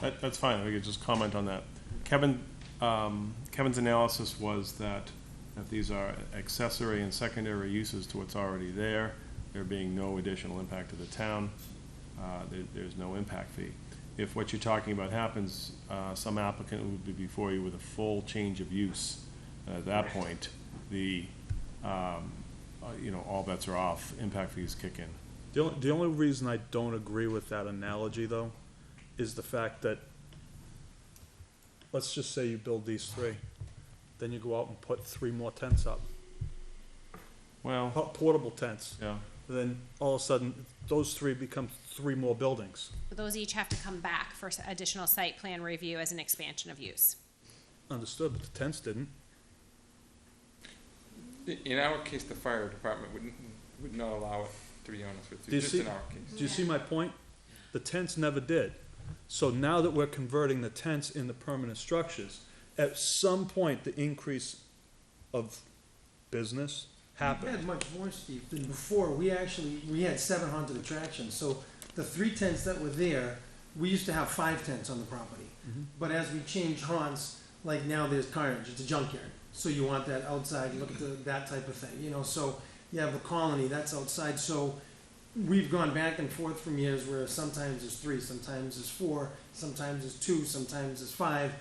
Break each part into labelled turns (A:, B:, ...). A: That, that's fine, we could just comment on that. Kevin, um, Kevin's analysis was that, that these are accessory and secondary uses to what's already there, there being no additional impact to the town, uh, there, there's no impact fee. If what you're talking about happens, uh, some applicant would be before you with a full change of use. At that point, the, um, uh, you know, all bets are off, impact fees kick in.
B: The only, the only reason I don't agree with that analogy, though, is the fact that, let's just say you build these three, then you go out and put three more tents up,
A: Well,
B: po- portable tents,
A: yeah,
B: then all of a sudden, those three become three more buildings.
C: But Those each have to come back for s- additional site plan review as an expansion of use.
B: Understood, but the tents didn't.
D: In our case, the fire department would, would not allow it, to be honest with
B: Do you
D: you, just
B: see-
D: in our case.
B: Do you see my point? The tents never did. So now that we're converting the tents into permanent structures, at some point, the increase of business
E: We
B: happened.
E: had much more, Steve, than before. We actually, we had seven haunted attractions, so the three tents that were there, we used to have five tents on the property. But as we changed haunts, like now there's carnage, it's a junkyard, so you want that outside, you look at the, that type of thing, you know, so you have the colony, that's outside, so we've gone back and forth from years where sometimes it's three, sometimes it's four, sometimes it's two, sometimes it's five,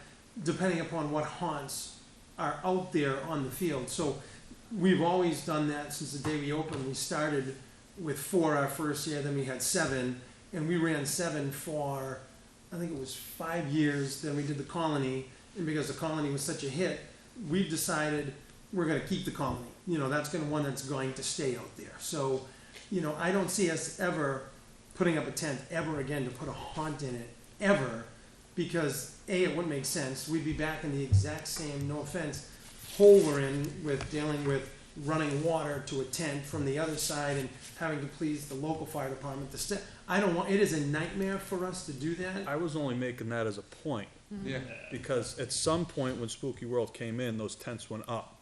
E: depending upon what haunts are out there on the field, so we've always done that since the day we opened. We started with four our first year, then we had seven, and we ran seven for, I think it was five years. Then we did the colony, and because the colony was such a hit, we've decided we're going to keep the colony. You know, that's going to one that's going to stay out there. So, you know, I don't see us ever putting up a tent ever again to put a haunt in it ever, because a it wouldn't make sense. We'd be back in the exact same. No offense hole we're in with dealing with running water to a tent from the other side and having to please the local fire department. The st- I don't want. It is a nightmare for us to do that.
B: I was only making that as a point,
D: Yeah,
B: because at some point when Spooky World came in, those tents went up.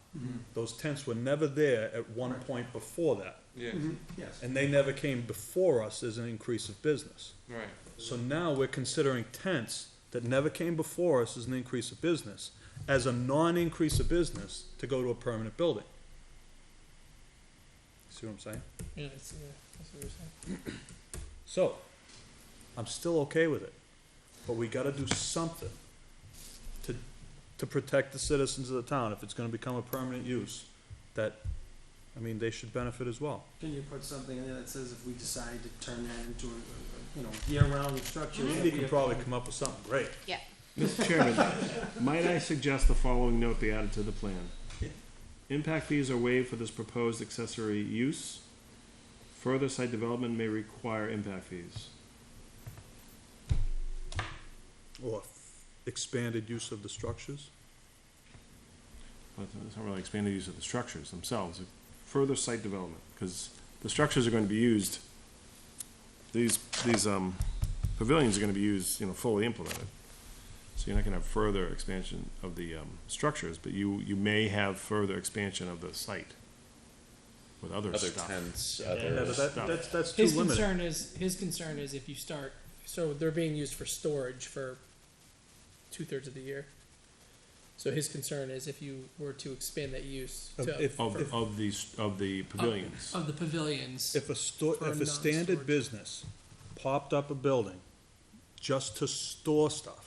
B: Those tents were never there at one point before that,
D: yeah,
E: Yes.
B: and they never came before us as an increase of business.
D: right.
B: So now we're considering tents that never came before us as an increase of business, as a non-increase of business to go to a permanent building. See what I'm saying?
F: Yeah, that's, yeah, that's what you're saying.
B: So, I'm still okay with it, but we gotta do something to, to protect the citizens of the town, if it's gonna become a permanent use, that, I mean, they should benefit as well.
E: Can you put something in there that says if we decide to turn that into a, a- a, you know year-round structure? that
B: Andy
E: we
B: can
E: have-
B: probably come up with something great.
C: Yeah.
A: Mr. Chairman, might I suggest the following note be added to the plan? Impact fees are waived for this proposed accessory use. Further site development may require impact fees.
B: Or f- expanded use of the structures?
A: But it's not really expanded use of the structures themselves, further site development, because the structures are gonna be used, these, these, um, pavilions are gonna be used, you know, fully implemented. So you're not gonna have further expansion of the, um, structures, but you, you may have further expansion of the site with other
G: other
A: stuff.
G: tents,
B: Yeah,
G: other.
B: but that, that's, that's too
F: His
B: limited.
F: concern is, his concern is if you start, so they're being used for storage for two-thirds of the year. So his concern is if you were to expand that use to,
B: If, if,
A: Of, of these, of the pavilions.
F: of the pavilions.
B: if a store,
F: For
B: if a standard
F: non-storage.
B: business popped up a building just to store stuff,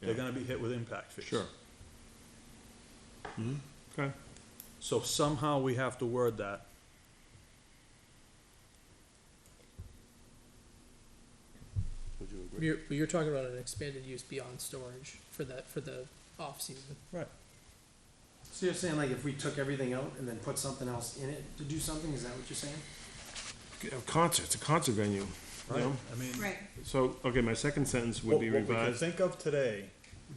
B: they're
A: Yeah.
B: gonna be hit with impact fees.
A: Sure. Okay.
B: So somehow we have to word that. Would you agree?
F: You're, but you're talking about an expanded use beyond storage for that, for the off-season.
B: Right.
E: So you're saying like if we took everything out and then put something else in it to do something? Is that what you're saying?
A: A concert, it's a concert venue, you
B: Right,
A: know?
B: I mean.
A: So, okay, my second sentence would
B: what-
A: be
B: What we can
A: revised.
B: think of today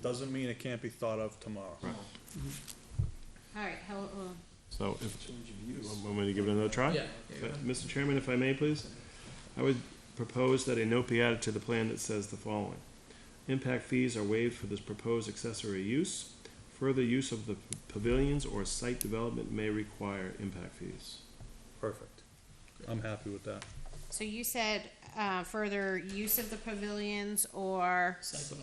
B: doesn't mean it can't be thought of tomorrow.
C: All right, uh, hello,
A: So if, want me to give it another try?
F: Yeah.
A: Uh, Mr. Chairman, if I may, please? I would propose that a note be added to the plan that says the following. Impact fees are waived for this proposed accessory use. Further use of the p- pavilions or site development may require impact fees.
B: Perfect. I'm happy with that.
C: so you said, uh, further use of the pavilions or
F: Site